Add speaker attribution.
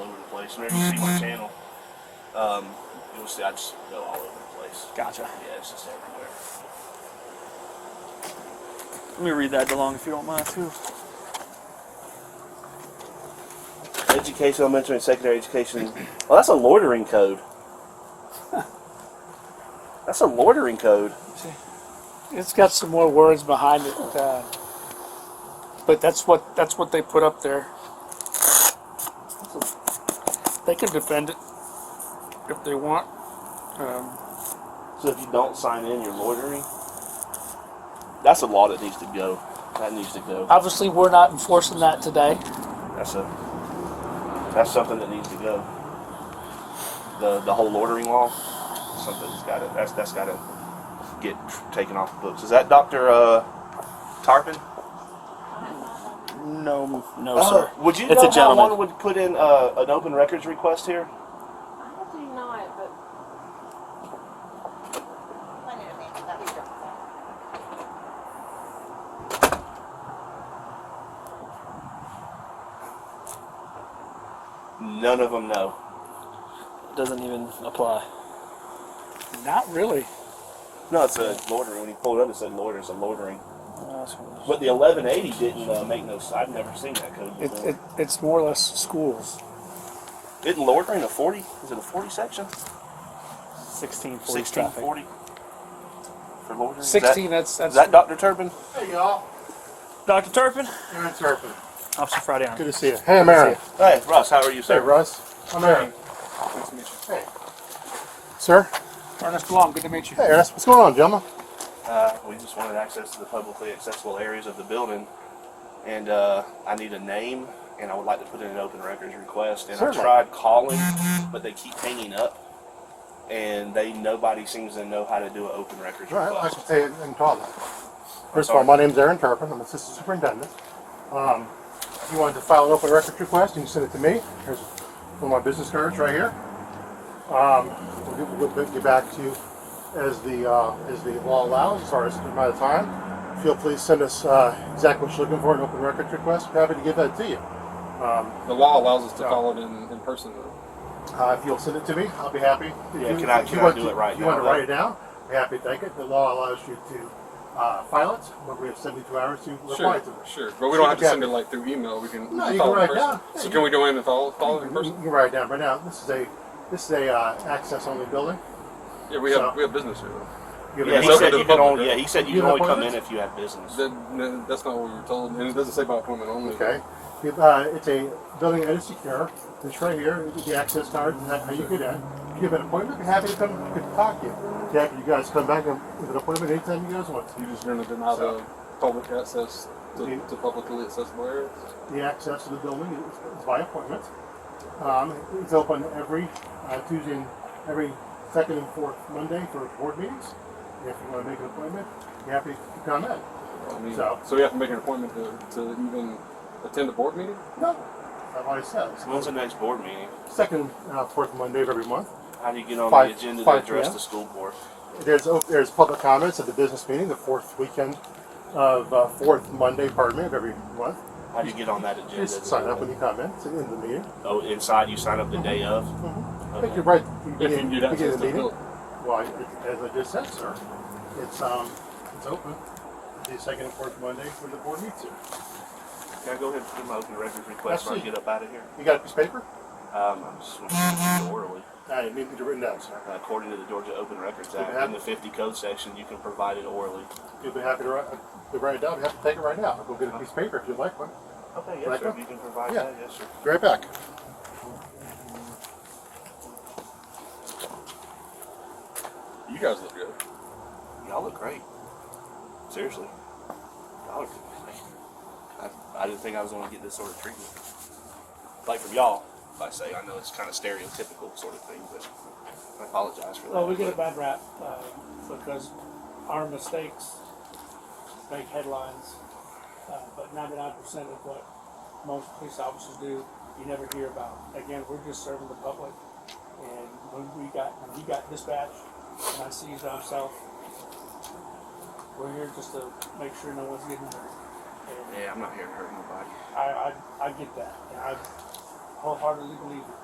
Speaker 1: place. Whenever you see my channel, um, you'll see I just go all over the place.
Speaker 2: Gotcha.
Speaker 1: Yeah, it's just everywhere.
Speaker 2: Let me read that DeLong if you don't mind too.
Speaker 1: Educational, elementary, and secondary education. Well, that's a loitering code. That's a loitering code.
Speaker 3: It's got some more words behind it, uh, but that's what, that's what they put up there. They can defend it if they want. Um,
Speaker 1: So if you don't sign in, you're loitering. That's a law that needs to go. That needs to go.
Speaker 3: Obviously, we're not enforcing that today.
Speaker 1: That's a. That's something that needs to go. The the whole loitering law. Something's got to. That's that's got to get taken off the books. Is that Doctor uh, Tarpon?
Speaker 2: No, no,
Speaker 1: Uh,
Speaker 2: sir.
Speaker 1: would you
Speaker 2: It's
Speaker 1: know
Speaker 2: a gentleman.
Speaker 1: how one would put in uh, an open records request here?
Speaker 4: I do not, but.
Speaker 1: None of them know.
Speaker 2: Doesn't even apply.
Speaker 3: Not really.
Speaker 1: No, it's a loitering. When you pulled it up, it said loiter. It's a loitering.
Speaker 2: Uh, so-
Speaker 1: But the 1180 didn't uh, make no. s- I've never seen that code.
Speaker 3: It,
Speaker 1: before.
Speaker 3: it, it's more or less schools.
Speaker 1: Isn't loitering a 40? Is it a 40 section?
Speaker 2: 1640 traffic.
Speaker 1: 1640? For loitering?
Speaker 3: Sixteen,
Speaker 1: Is
Speaker 3: that's,
Speaker 1: that, is
Speaker 3: that's,
Speaker 1: that Dr. Turbin?
Speaker 5: Hey, y'all.
Speaker 2: Dr. Turpin,
Speaker 5: Aaron Turpin.
Speaker 2: Officer Friday on.
Speaker 5: Good to see you. Hey, I'm Aaron.
Speaker 1: Hey, Russ, how are you,
Speaker 5: Hey,
Speaker 1: sir?
Speaker 5: Russ. I'm Aaron. Hey. Sir?
Speaker 3: Ernest DeLong, good to meet you.
Speaker 5: Hey, Ernest. What's going on, gentlemen?
Speaker 1: Uh, we just wanted access to the publicly accessible areas of the building, and uh, I need a name, and I would like to put in an open records request. And
Speaker 5: Certainly.
Speaker 1: I tried calling, but they keep hanging up, and they nobody seems to know how to do an open records
Speaker 5: All right, I
Speaker 1: request.
Speaker 5: can say it in Tahoe. First of all, my name's Aaron Turpin. I'm Assistant Superintendent. Um, if you wanted to file an open records request, you can send it to me. Here's one of my business cards right here. Um, we'll get, we'll get- get back to you as the, uh, as the law allows, as far as the amount of time. Feel free to send us, uh, exactly what you're looking for, an open records request. We're Happy to give that to you.
Speaker 6: The law allows us to call it in, in person.
Speaker 5: Uh, if you'll send it to me, I'll be happy. If
Speaker 1: Yeah,
Speaker 5: you-
Speaker 1: can I-
Speaker 5: if
Speaker 1: can
Speaker 5: you
Speaker 1: I
Speaker 5: want
Speaker 1: do
Speaker 5: to-
Speaker 1: it right
Speaker 5: if you
Speaker 1: now,
Speaker 5: want to
Speaker 1: though?
Speaker 5: write it down, I'm happy to take it. The law allows you to uh, file it, but we have 72 hours to reply
Speaker 6: Sure,
Speaker 5: to it.
Speaker 6: sure. But we
Speaker 5: Sure,
Speaker 6: don't have to send
Speaker 5: Captain.
Speaker 6: it like through email. We can
Speaker 5: No, you
Speaker 6: call
Speaker 5: can
Speaker 6: it
Speaker 5: write
Speaker 6: in person.
Speaker 5: down. Mm-hmm. Yeah,
Speaker 6: So
Speaker 5: you
Speaker 6: can we go in and follow, follow it in
Speaker 5: You
Speaker 6: person?
Speaker 5: can write it down right now. This is a this is a uh, access only building.
Speaker 6: Yeah, we have
Speaker 5: So-
Speaker 6: we have business here.
Speaker 5: You
Speaker 1: Yeah,
Speaker 5: have
Speaker 6: It's
Speaker 1: he
Speaker 5: a-
Speaker 6: open
Speaker 1: said
Speaker 6: to
Speaker 1: you
Speaker 6: the
Speaker 1: can
Speaker 6: public,
Speaker 1: only, yeah,
Speaker 6: right?
Speaker 1: he said you
Speaker 5: You
Speaker 1: can
Speaker 5: have
Speaker 1: only come in
Speaker 5: appointments?
Speaker 1: if you have business.
Speaker 6: That, that- that's not what we were told, and it doesn't say by appointment only.
Speaker 5: okay. You- uh, it's a building that is secure. It's right here. You get the access card, and that's how you get in. If you have an appointment, we're happy to come we can talk to you. Yeah, you guys come back and with an appointment anytime you guys want.
Speaker 6: You're just going to deny
Speaker 5: So- Mm-hmm.
Speaker 6: the public access to,
Speaker 5: You-
Speaker 6: to publicly accessible areas.
Speaker 5: The access to the building is, is by appointment. Um, it's open every uh, Tuesday, and every second and fourth Monday for board meetings. If you want to make an appointment, you're happy to come in.
Speaker 6: I mean,
Speaker 5: So-
Speaker 6: so, we have to make an appointment to, to even attend a board meeting.
Speaker 5: No, that's what it says.
Speaker 1: When's the next board meeting?
Speaker 5: Second, uh, fourth Monday of every month.
Speaker 1: How do you get on
Speaker 5: Five-
Speaker 1: the agenda to
Speaker 5: five
Speaker 1: address
Speaker 5: PM?
Speaker 1: the school board?
Speaker 5: There's op- there's public comments at the business meeting, the fourth weekend of uh, fourth Monday, pardon me, of every month.
Speaker 1: How do you get on that agenda?
Speaker 5: Just sign up when you come in. It's in the meeting.
Speaker 1: Oh, inside you sign up the day of.
Speaker 5: I think you're right. You
Speaker 6: If you
Speaker 5: begin-
Speaker 6: can get
Speaker 5: begin
Speaker 6: access to
Speaker 5: the
Speaker 6: the
Speaker 5: meeting.
Speaker 6: building.
Speaker 5: Well, I- as I just said, sir, it's, um, it's open, the second and fourth Monday for the board meets here.
Speaker 1: Can I go ahead and put my open records request and I
Speaker 5: Absolutely.
Speaker 1: get up out of here?
Speaker 5: You got a piece of paper?
Speaker 1: Um, I'm just going to orally.
Speaker 5: I need it written down, sir.
Speaker 1: According to the Georgia Open Records
Speaker 5: Okay.
Speaker 1: Act, in the 50 code section, you can provide it orally.
Speaker 5: You'll be happy to write, uh, to write it down, you have to take it right now, I'll go get a piece of paper if you'd like one.
Speaker 1: Okay,
Speaker 5: yes, sir, if
Speaker 1: you can provide
Speaker 5: that,
Speaker 1: yes, sir.
Speaker 5: Be right back.
Speaker 6: You guys look good.
Speaker 1: Y'all look great. Seriously. Y'all look great. I, I didn't think I was going to get this sort of treatment. Like from y'all, if I say, I know it's kind of stereotypical sort of thing, but I apologize for that.
Speaker 3: Well, we get a
Speaker 1: but-
Speaker 3: bad rap, uh, because our mistakes make headlines, uh, but ninety-nine percent of what most police officers do, you never hear about. Again, we're just serving the public, and when we got, when he got dispatched, and I seized on himself, we're here just to make sure no one's getting hurt. And
Speaker 1: Yeah, I'm not here to hurt nobody.
Speaker 3: I, I, I get that, and I wholeheartedly believe it.